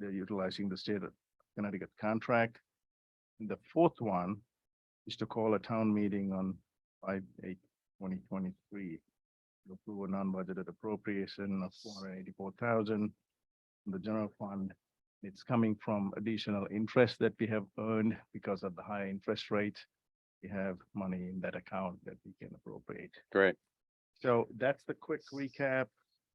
utilizing the state of Connecticut contract. And The fourth one is to call a town meeting on five eight twenty twenty-three. to Approve a non-budgeted appropriation of four hundred eighty-four thousand. The general fund, it's coming from additional interest that we have earned because of the high interest rate. We have money in that account that we can appropriate. Great. So that's the quick recap.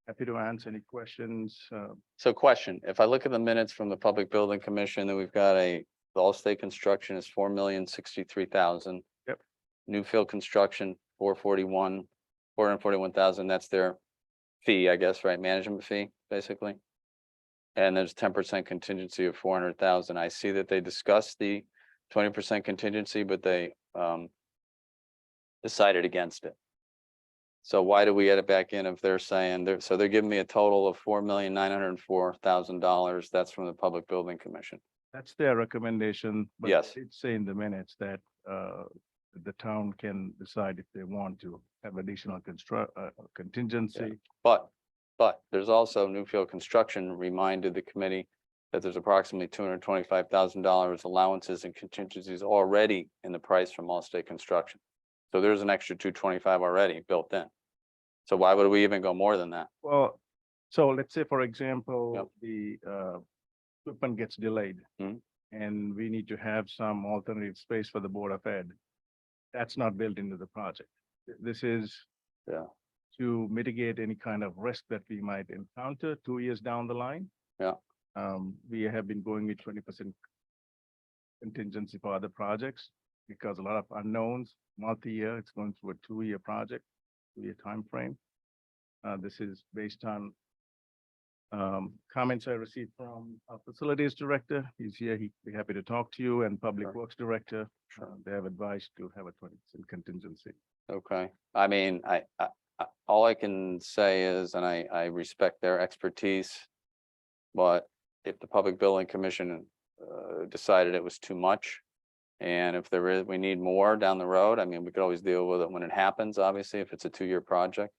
Happy to answer any questions. Uh, So question, if I look at the minutes from the Public Building Commission, then we've got a, the Allstate Construction is four million sixty-three thousand. Yep. Newfield Construction, four forty-one, four hundred forty-one thousand, that's their fee, I guess, right? Management fee, basically. And there's ten percent contingency of four hundred thousand. I see that they discussed the twenty percent contingency, but they um decided against it. So why do we add it back in if they're saying they're, so they're giving me a total of four million nine hundred and four thousand dollars? That's from the Public Building Commission. That's their recommendation. but Yes. It's say in the minutes that uh, the town can decide if they want to have additional construct, uh, contingency. But, but there's also Newfield Construction reminded the committee that there's approximately two hundred and twenty-five thousand dollars allowances and contingencies already in the price from Allstate Construction. So there's an extra two twenty-five already built in. So why would we even go more than that? Well, so let's say, for example, the uh, equipment gets delayed. Mhm. And we need to have some alternative space for the Board of Ed. That's not built into the project. Th- This is Yeah. to mitigate any kind of risk that we might encounter two years down the line. Yeah. Um, we have been going with twenty percent contingency for other projects because a lot of unknowns, multi-year, it's going through a two-year project, two-year timeframe. Uh, this is based on um, comments I received from our facilities director. He's here. He'd be happy to talk to you and Sure. public works director. Sure. Uh, They have advised to have a twenty percent contingency. Okay, I mean, I, I, I, all I can say is, and I, I respect their expertise. But if the Public Building Commission, uh, decided it was too much. And if there is, we need more down the road, I mean, we could always deal with it when it happens, obviously, if it's a two-year project.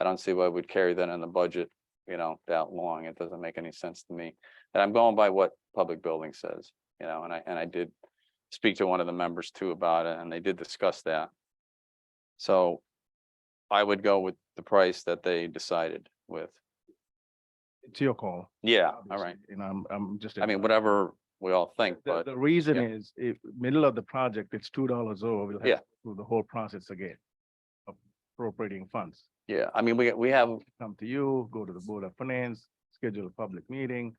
I don't see why we'd carry that in the budget, you know, that long. It doesn't make any sense to me. And I'm going by what Public Building says, you know, and I, and I did speak to one of the members too about it, and they did discuss that. So I would go with the price that they decided with. It's your call. Yeah, all obviously, right. And I'm, I'm just. I mean, advising. whatever we all think, The, but the reason yeah. is if middle of the project, it's two dollars over, we'll have Yeah. to do the whole process again. of Appropriating funds, yeah, I mean, we, we have, we come to you, go to the Board of Finance, schedule a public meeting,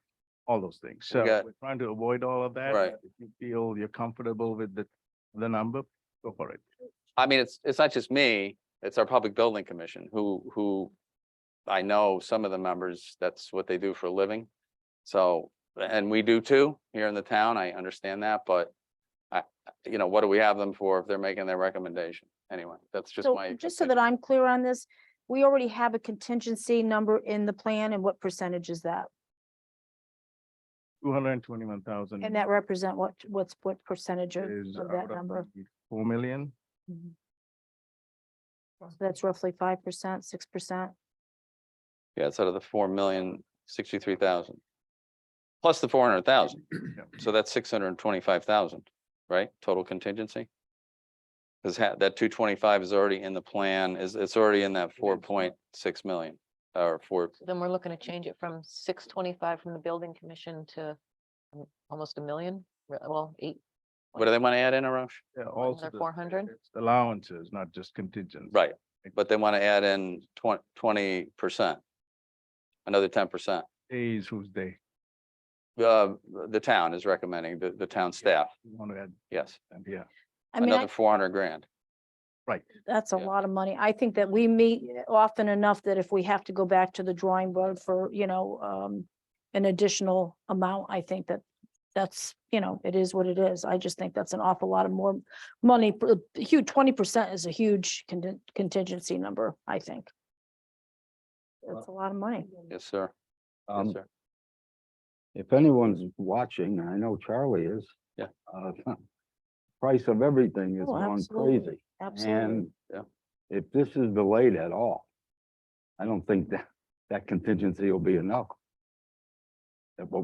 all those things. So got- we're trying to avoid all of that. Right. If you feel you're comfortable with the, the number, go for it. I mean, it's, it's not just me, it's our Public Building Commission who, who I know some of the members, that's what they do for a living. So, and we do too, here in the town, I understand that, but I, you know, what do we have them for if they're making their recommendation? Anyway, that's just So my. just so opinion. that I'm clear on this, we already have a contingency number in the plan and what percentage is that? Two hundred and twenty-one thousand. Mm. And that represent what, what's what percentage of is of out that of number? the Four million, Mhm. So That's roughly five percent, six percent. Yeah, it's out of the four million sixty-three thousand. Plus the four hundred thousand, Yeah. so that's six hundred and twenty-five thousand, right? Total contingency? Cause ha- that two twenty-five is already in the plan, is, it's already in that four point six million, or four, So Then we're looking to change it from six twenty-five from the building commission to um, almost a million, re- well, eight, what do they wanna add in, Arash? Yeah, also. the- four hundred? it's Allowances, not just contingent. Right, but they wanna add in twen- percent. Another ten percent, Days, who's they, uh, the town is recommending, the, the town staff, you want to add, yes, and yeah, I mean, another I- four hundred grand. right. that's a yeah. lot of money. I think that we meet often enough that if we have to go back to the drawing board for, you know, um, an additional amount, I think that that's, you know, it is what it is. I just think that's an awful lot of more money. per- Huge, twenty percent is a huge contin- contingency number, I think. That's a lot of money. Yes, sir, yes, Um, sir, if anyone's watching, and I know Charlie is. Yeah. uh, Price of everything has Oh, gone absolutely, crazy, Absolutely. and yeah. if this is delayed at all, I don't think that, that contingency will be enough. That what